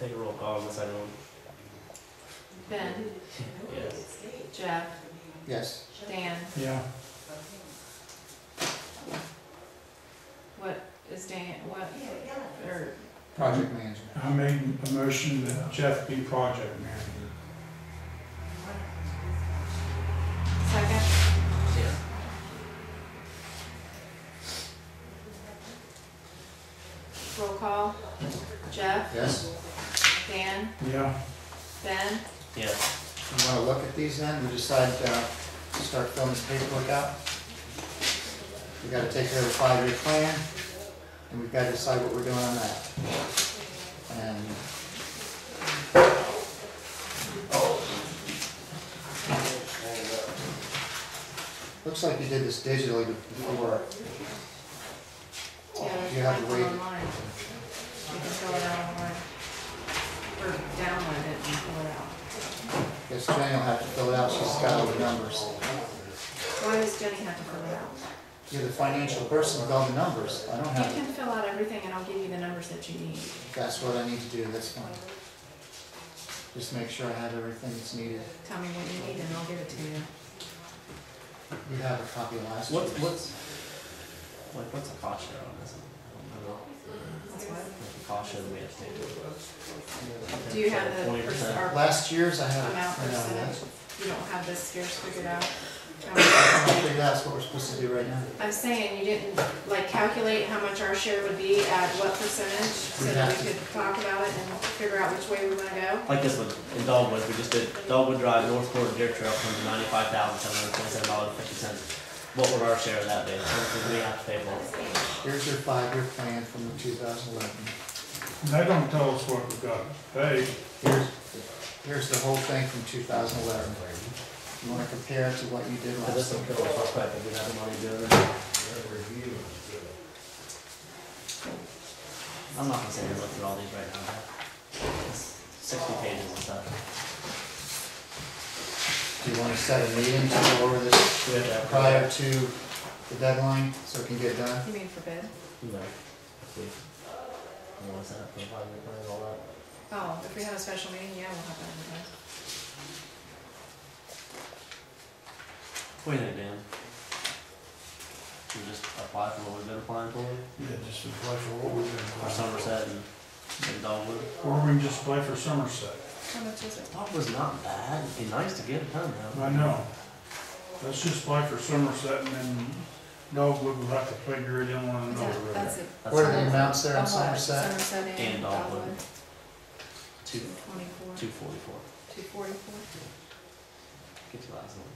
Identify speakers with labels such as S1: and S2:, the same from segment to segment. S1: Take a roll call on this item.
S2: Ben,
S1: Yes.
S2: Jeff,
S3: Yes.
S2: Dan,
S4: Yeah,
S2: what is Dan, what, or,
S3: Project management.
S4: I made a motion that Jeff be project manager.
S2: second,
S1: Yeah.
S2: roll call, Jeff,
S3: Yes.
S2: Dan,
S4: Yeah,
S2: Ben,
S1: Yes.
S3: You wanna look at these then? We decide, uh, to start filling this paperwork out? We gotta take care of the five-year plan, and we've gotta decide what we're doing on that. And. Looks like you did this digitally before.
S2: yeah,
S3: Oh, You
S2: there's
S3: have to
S2: one
S3: wait.
S2: online. You can fill it out online, or download it and fill it out.
S3: Guess Jenny will have to fill it out, she's got all the numbers.
S2: Why does Jenny have to fill it out?
S3: You're the financial person with all the numbers, I don't have,
S2: You can
S3: them.
S2: fill out everything and I'll give you the numbers that you need.
S3: that's what I need to do, that's fine. Just make sure I have everything that's needed.
S2: Tell me what you need and I'll give it to you.
S3: You have a copy of last
S1: What's,
S3: year's.
S1: what's, like, what's a cost share on this? I don't know.
S2: That's what.
S1: Like, the cost share that we have to take.
S2: Do you have the,
S1: Twenty
S2: pers-
S1: percent.
S2: our-
S3: Last year's I have.
S2: amount
S3: I know that.
S2: percentage? You don't have this scarce figured out?
S3: I'm
S2: Um,
S3: gonna figure that's what we're supposed to do right now.
S2: I'm saying you didn't, like, calculate how much our share would be at what percentage, so that we could talk about it and figure out which way we wanna go.
S1: Like this one, in Dogwood, we just did, Dogwood Drive, North Court, Deer Trail, comes to ninety-five thousand, seven hundred twenty-seven dollars, fifty cents. What would our share of that be? How much would we have to pay for it?
S3: Here's your five-year plan from the 2011.
S4: And they don't tell us what we got to pay.
S3: Here's, here's the whole thing from 2011. You wanna compare it to what you did
S1: Cause this
S3: last
S1: one
S3: year?
S1: could have cost quite a bit of money doing it. I'm not gonna say I looked at all these right now. but it's Sixty pages and stuff.
S3: Do you wanna set a meeting to go over this
S1: We have that
S3: prior to the deadline, so it can get done?
S2: You mean for bid?
S1: No. If we- we wanna set up the five-year plan and all that.
S2: Oh, if we have a special meeting, yeah, we'll have that
S1: What do you think, Dan? Should we just apply for what we've been applying for,
S4: Yeah, just apply for what we're
S1: or Somerset and, and Dogwood?
S4: Or we can just apply for Somerset.
S2: in there. How much is it?
S1: Dogwood's not bad, it'd be nice to get it done though.
S4: I know. Let's just apply for Somerset and then Dogwood will have to figure it in one
S2: Is
S4: another.
S2: that- That's
S4: right?
S2: it.
S1: That's
S3: What are
S1: like
S3: the amounts there in
S2: Of what?
S3: Somerset?
S2: Somerset
S1: And
S2: and
S1: Dogwood.
S2: Dogwood,
S1: Two,
S2: two twenty-four,
S1: two forty-four,
S2: two forty-four,
S1: get your last one.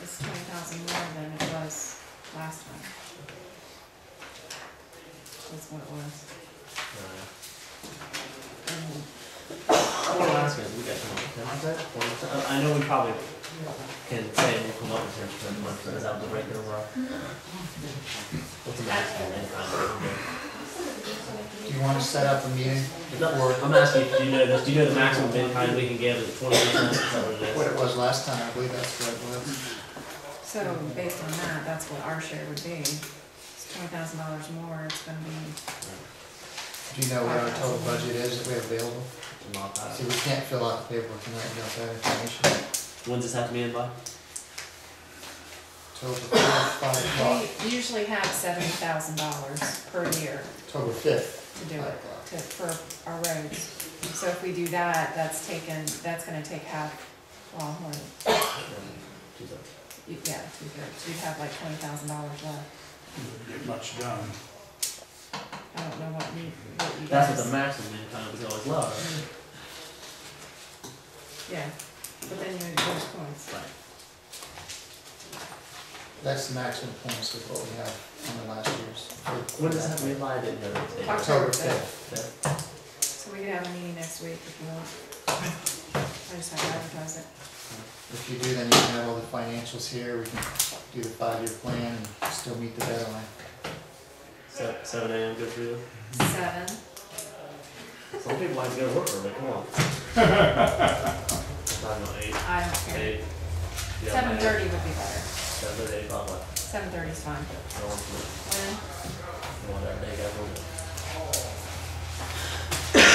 S2: it's twenty thousand more than it was last time. That's what it was.
S1: Alright.
S2: Mhm.
S1: What I'm asking is, we got some, ten percent, twenty percent, I- I know we probably can say we'll come up with ten percent, one percent, is that the right number? What's the maximum income?
S3: Do you wanna set up a meeting
S1: No,
S3: before,
S1: I'm asking, you, do you know this, do you know the maximum bid time we can give is twenty percent, is that what it
S3: what
S1: is?
S3: it was last time, I believe that's what it was.
S2: So based on that, that's what our share would be. It's twenty thousand dollars more, it's gonna be,
S3: Do you know what our total budget is that we have available?
S1: Not that.
S3: See, we can't fill out the paperwork tonight without that information.
S1: When's this have to be in by?
S3: Total fifth, five o'clock,
S2: we usually have seventy thousand dollars per year
S3: total fifth,
S2: to do
S3: five
S2: it,
S3: o'clock.
S2: to, for our roads. So if we do that, that's taken, that's gonna take half Longhorn,
S1: Tuesday.
S2: You- yeah, two thirds, you'd have like twenty thousand dollars left.
S4: Get much done.
S2: I don't know what you, what you guys.
S1: That's what the maximum bid time is always low, right?
S2: Yeah, but then you would lose points.
S1: Right.
S3: That's the maximum points with what we have on the last year's.
S1: When does that have to be in by, I didn't know that. today.
S2: October.
S3: October fifth.
S1: Fifth.
S2: So we could have a meeting next week if you want. I just have to advertise it.
S3: If you do, then you can have all the financials here, we can do the five-year plan and still meet the deadline.
S1: Se- Seven AM, good for you?
S2: Seven.
S1: Some people have to go to work early, come on. Nine, no, eight,
S2: I don't care.
S1: eight. Yeah,
S2: Seven
S1: eight.
S2: thirty would be better.
S1: Seven, eight, blah, blah.
S2: Seven thirty is fine.
S1: I don't want to,
S2: When?
S1: I don't want that day, guys,